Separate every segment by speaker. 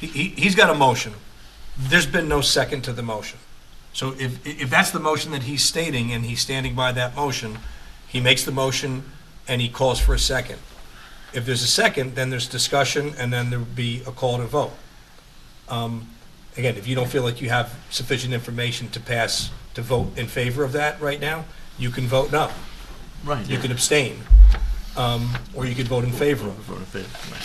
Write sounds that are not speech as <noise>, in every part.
Speaker 1: He, he- he's got a motion. There's been no second to the motion. So if, if that's the motion that he's stating and he's standing by that motion, he makes the motion and he calls for a second. If there's a second, then there's discussion and then there would be a call to vote. Um, Again, if you don't feel like you have sufficient information to pass, to vote in favor of that right now, you can vote no.
Speaker 2: Right.
Speaker 1: You
Speaker 2: yeah.
Speaker 1: can abstain. um, Or you could vote in favor of it.
Speaker 2: Vote in favor, right.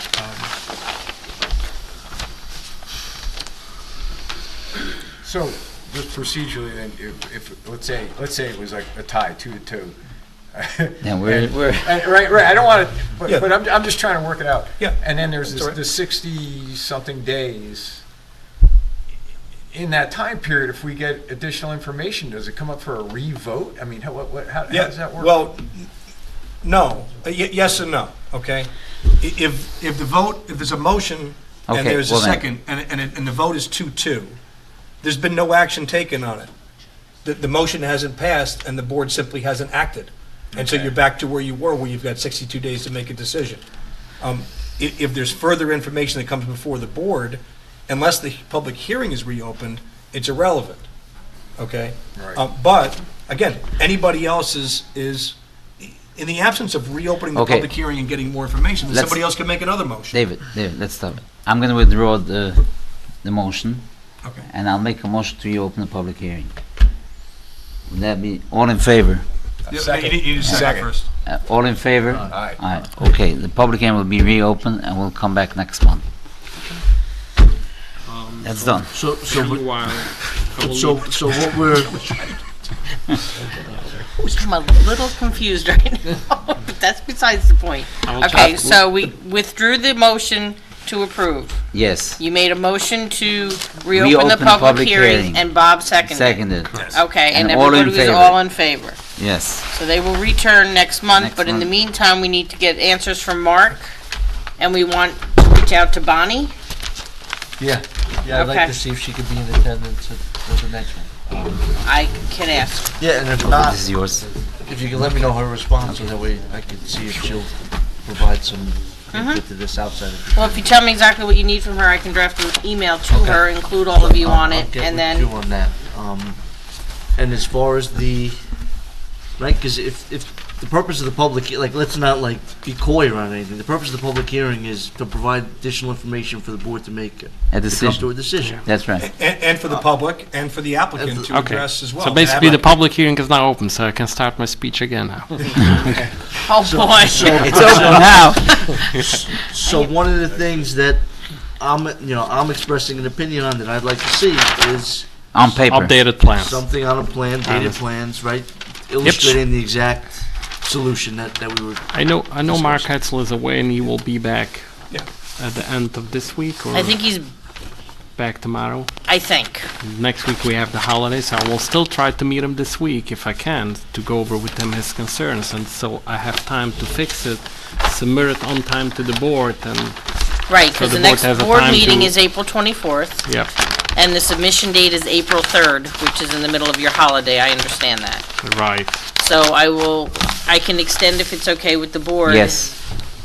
Speaker 3: So, just procedurally, then, if, if, let's say, let's say it was like a tie, two to two.
Speaker 4: Yeah, we're,
Speaker 3: And-
Speaker 4: we're, <laughs>
Speaker 3: and- right, right, I don't want to, but,
Speaker 1: Yeah.
Speaker 3: but I'm, I'm just trying to work it out.
Speaker 1: Yeah,
Speaker 3: And then there's
Speaker 1: that's
Speaker 3: this,
Speaker 1: all right.
Speaker 3: the sixty-something days. In that time period, if we get additional information, does it come up for a re-vote? I mean, how, what, what- how, how
Speaker 1: Yeah,
Speaker 3: does that work?
Speaker 1: Well, n- no, Uh, ye- yes and no, okay? I- If, if the vote, if there's a motion and
Speaker 4: Okay,
Speaker 1: there's a
Speaker 4: well then-
Speaker 1: second, and, and, it- and the vote is two-two, there's been no action taken on it. The, the motion hasn't passed and the board simply hasn't acted. And so
Speaker 3: Okay.
Speaker 1: you're back to where you were, where you've got sixty-two days to make a decision. Um, i- if there's further information that comes before the board, unless the public hearing is reopened, it's irrelevant, okay?
Speaker 3: Right.
Speaker 1: Uh, But, again, anybody else is, is, in the absence of reopening the
Speaker 4: Okay.
Speaker 1: public hearing and getting more information, then
Speaker 4: Let's-
Speaker 1: somebody else can make another motion.
Speaker 4: David, David, let's stop it. I'm gonna withdraw the, the motion,
Speaker 1: Okay.
Speaker 4: and I'll make a motion to reopen the public hearing. Would that be, all in favor?
Speaker 1: Yeah,
Speaker 3: Second.
Speaker 1: You need- you need a second
Speaker 3: Second.
Speaker 1: first.
Speaker 4: Uh, All in favor?
Speaker 3: Aye.
Speaker 4: Aye, okay, the public hearing will be reopened, and we'll come back next month. That's done.
Speaker 2: So,
Speaker 5: So
Speaker 2: so,
Speaker 5: a
Speaker 2: we-
Speaker 5: while. I will
Speaker 2: so,
Speaker 5: leave.
Speaker 2: so what we're,
Speaker 6: which I'm a little confused <laughs> right now, but that's besides the point.
Speaker 5: I will
Speaker 6: Okay,
Speaker 5: talk-
Speaker 6: so we withdrew the motion to approve.
Speaker 4: Yes,
Speaker 6: You made a motion to
Speaker 4: Reopen
Speaker 6: reopen the
Speaker 4: the public
Speaker 6: public
Speaker 4: hearing.
Speaker 6: hearing, and Bob seconded.
Speaker 4: seconded,
Speaker 6: Okay, and
Speaker 4: And all in
Speaker 6: everybody was
Speaker 4: favor.
Speaker 6: all in favor.
Speaker 4: yes.
Speaker 6: So they will return next month,
Speaker 4: Next
Speaker 6: but in the
Speaker 4: month.
Speaker 6: meantime, we need to get answers from Mark, and we want to reach out to Bonnie.
Speaker 7: Yeah, yeah, I'd like
Speaker 6: Okay.
Speaker 7: to see if she could be in attendance at at the next one.
Speaker 6: I can ask.
Speaker 7: Yeah, and if
Speaker 4: Oh,
Speaker 7: not,
Speaker 4: This is yours.
Speaker 7: if you could let me know her response, so that way I can see if she'll provide some
Speaker 6: Mm-hmm.
Speaker 7: input to this outside of.
Speaker 6: Well, if you tell me exactly what you need from her, I can draft an email to
Speaker 7: Okay.
Speaker 6: her, include all of you
Speaker 7: I'll-
Speaker 6: on
Speaker 7: I'll
Speaker 6: it,
Speaker 7: get
Speaker 6: and
Speaker 7: with
Speaker 6: then.
Speaker 7: you on that. Um, And as far as the, right, because if, if the purpose of the public, he- like, let's not like be coy around anything. The purpose of the public hearing is to provide additional information for the board to make,
Speaker 4: A
Speaker 7: to come to
Speaker 4: decision,
Speaker 7: a decision.
Speaker 4: that's right.
Speaker 1: And, and for the public and for the applicant to
Speaker 5: Uh, Okay.
Speaker 1: address as well.
Speaker 5: So
Speaker 1: Have
Speaker 5: basically,
Speaker 1: a-
Speaker 5: the public hearing is now open, so I can start my speech again
Speaker 1: <laughs>
Speaker 5: <laughs> now.
Speaker 6: Oh,
Speaker 5: <laughs>
Speaker 6: boy.
Speaker 4: It's open now.
Speaker 7: So one of the things that I'm, you know, I'm expressing an opinion on that I'd like to see is
Speaker 4: On paper.
Speaker 5: Updated plans.
Speaker 7: something on a plan, dated
Speaker 5: Honest.
Speaker 7: plans, right? Illustrating the exact solution that, that we were,
Speaker 5: I know, I know Mark Hetzel is away and he will be back
Speaker 1: Yeah.
Speaker 5: at the end of this week or
Speaker 6: I think he's.
Speaker 5: back tomorrow.
Speaker 6: I think.
Speaker 5: Next week we have the holidays. I will still try to meet him this week if I can to go over with him his concerns and so I have time to fix it, submit it on time to the board and,
Speaker 6: Right,
Speaker 5: So
Speaker 6: because
Speaker 5: the
Speaker 6: the
Speaker 5: board
Speaker 6: next
Speaker 5: has a
Speaker 6: board
Speaker 5: time
Speaker 6: meeting
Speaker 5: to-
Speaker 6: is April 24th,
Speaker 5: yeah,
Speaker 6: and the submission date is April 3rd, which is in the middle of your holiday, I understand that.
Speaker 5: right.
Speaker 6: So I will, I can extend, if it's okay with the board.
Speaker 4: Yes,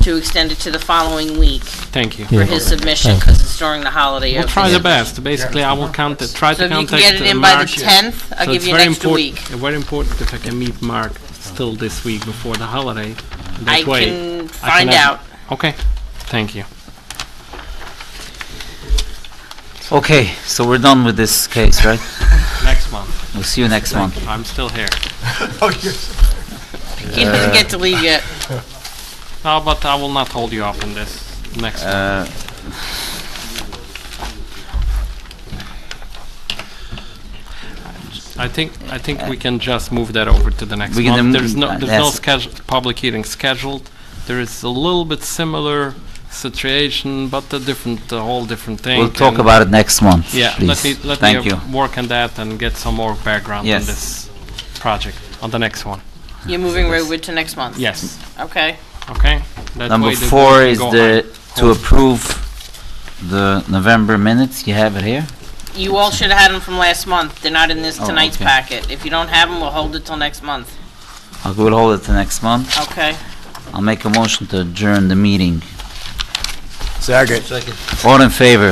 Speaker 6: To extend it to the following week
Speaker 5: Thank you.
Speaker 6: for his submission, because it's during the holiday.
Speaker 5: We'll
Speaker 6: of
Speaker 5: try
Speaker 6: the-
Speaker 5: the best. Basically, I will count it, try
Speaker 6: So
Speaker 5: to
Speaker 6: if you
Speaker 5: contact
Speaker 6: can get it
Speaker 5: uh,
Speaker 6: in by the
Speaker 5: Mark.
Speaker 6: 10th,
Speaker 5: So
Speaker 6: I'll give
Speaker 5: it's
Speaker 6: you
Speaker 5: very
Speaker 6: an extra
Speaker 5: important-
Speaker 6: week.
Speaker 5: uh, Very important if I can meet Mark still this week before the holiday.
Speaker 6: I
Speaker 5: That way.
Speaker 6: can find
Speaker 5: have-
Speaker 6: out.
Speaker 5: Okay, thank you.
Speaker 4: okay, so we're done with this case, right?
Speaker 5: Next month.
Speaker 4: We'll see you next month.
Speaker 5: I'm still here.
Speaker 6: He doesn't get to leave
Speaker 5: <laughs>
Speaker 6: yet.
Speaker 5: No, but I will not hold you up on this next one.
Speaker 4: Uh,
Speaker 5: I think, I think we can just move that over to the next
Speaker 4: We can
Speaker 5: month.
Speaker 4: then-
Speaker 5: There's no,
Speaker 4: uh,
Speaker 5: there's no
Speaker 4: yes.
Speaker 5: schedule- public hearing scheduled. There is a little bit similar situation, but a different, a whole different thing.
Speaker 4: We'll talk
Speaker 5: and-
Speaker 4: about it next month,
Speaker 5: Yeah, let me,
Speaker 4: please.
Speaker 5: let
Speaker 4: Thank
Speaker 5: me
Speaker 4: you.
Speaker 5: uh, work on that and get some more background on
Speaker 4: Yes.
Speaker 5: this project, on the next one.
Speaker 6: You're moving Redwood to next month?
Speaker 5: Yes,
Speaker 6: Okay.
Speaker 5: okay? That
Speaker 4: Mm. Number
Speaker 5: way the- we
Speaker 4: four
Speaker 5: can
Speaker 4: is
Speaker 5: go
Speaker 4: the, to
Speaker 5: Hold.
Speaker 4: approve the November minutes. You have it here?
Speaker 6: You all should have had them from last month. They're not in this
Speaker 4: Oh,
Speaker 6: tonight's
Speaker 4: okay.
Speaker 6: packet. If you don't have them, we'll hold it till next month,
Speaker 4: I'll, we'll hold it to next month.
Speaker 6: okay?
Speaker 4: I'll make a motion to adjourn the meeting.
Speaker 3: Second.
Speaker 7: second.
Speaker 4: All in favor?